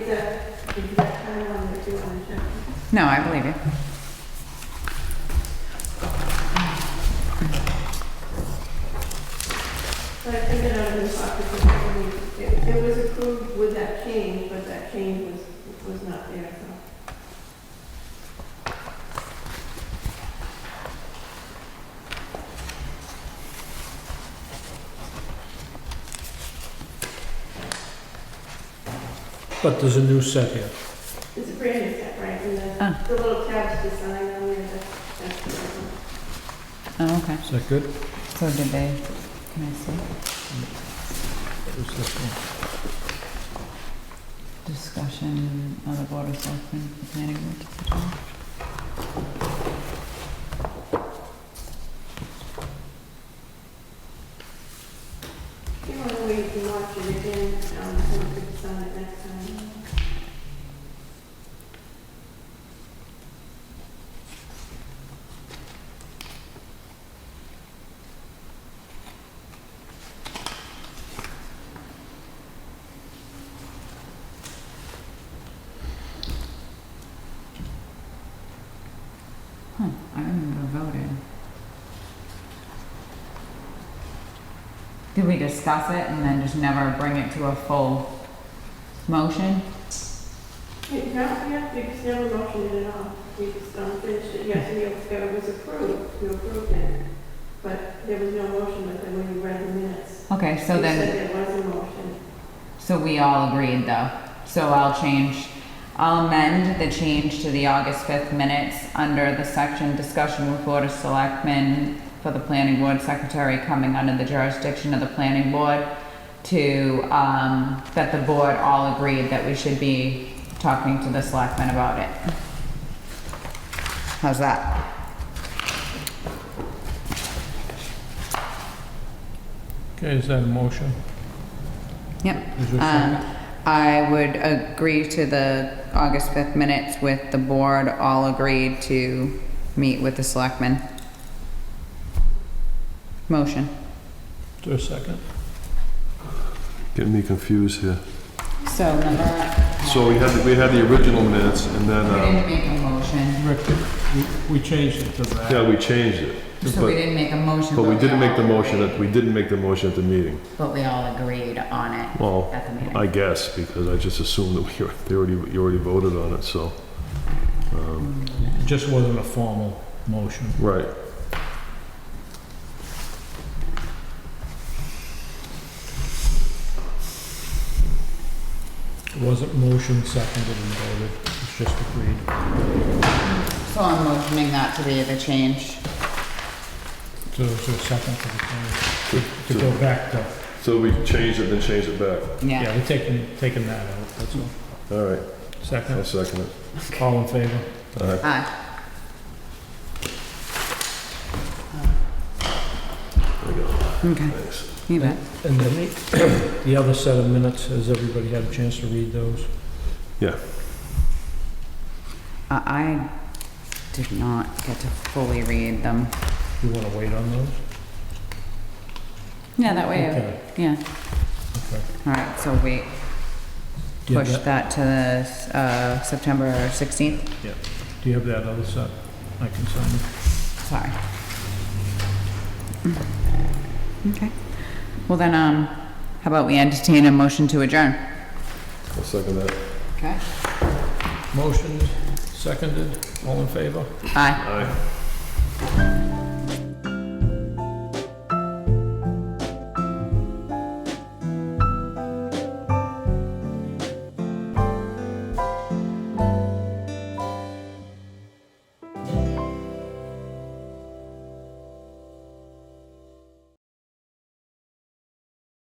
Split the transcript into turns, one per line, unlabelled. exactly the one that you want to show.
No, I believe you.
But I think it out of the pocket, because it, it was approved with that change, but that change was, was not there, so.
But there's a new set here.
It's a brand new set, right, and
Ah.
the, the little tabs design on there, that's, that's the one.
Oh, okay.
Is that good?
So did they, can I see?
What's this one?
Discussion on the board of selectmen, the planning board. decision.
You want to wait and watch it again, um, and we could sign it next time.
Huh, I remember voting. Did we discuss it and then just never bring it to a full motion?
Yeah, no, yeah, we just never motioned it at all. We just, um, finished it, yes, and you- it was approved, you approved it. But there was no motion with it when you read the minutes.
Okay, so
You
then,
said there was a motion.
so we all agreed though. So I'll change, I'll amend the change to the August 5th minutes under the section discussion with Board of Selectmen for the Planning Board Secretary coming under the jurisdiction of the Planning Board to, um, that the board all agreed that we should be talking to the selectmen about it. How's that?
Okay, is that a motion?
Yep.
Is there a second?
Um, I would agree to the August 5th minutes with the board all agreed to meet with the selectmen. Motion.
Is there a second?
Getting me confused here.
So number,
So we had, we had the original minutes and then,
we
um,
didn't make a motion,
Rick, we, we changed it to that.
yeah, we changed it.
so we
But,
didn't make a motion.
but we didn't make the
all
motion, at
agreed-
we didn't make the motion at the meeting.
But we all agreed on it
Well,
at the
I
meeting.
guess, because I just assumed that we, were- they already, you already voted on it, so. um,
It just wasn't a formal motion.
Right.
It wasn't motion seconded and voted, it's just agreed.
So I'm motioning that to be the change.
So is there a second to the
To-
change? To go back to,
So we changed it, then changed it back.
Yeah.
yeah, we're taking, taking that out, that's all.
All right, I'll
Second,
second it.
all in favor?
All right.
Aye.
There you go.
Okay,
Thanks.
you bet.
And the, the other set of minutes, has everybody had a chance to read those?
I, I did not get to fully read them.
You wanna wait on those?
Yeah, that way,
Okay,
yeah.
okay.
All right, so wait,
Do you have
push that
that-
to the, uh, September 16th,
Do you have that other set? I can sign it.
sorry. Okay, well then, um, how about we entertain a motion to adjourn?
I'll second that.
Okay.
Motioned, seconded, all in favor?
Aye.
Aye.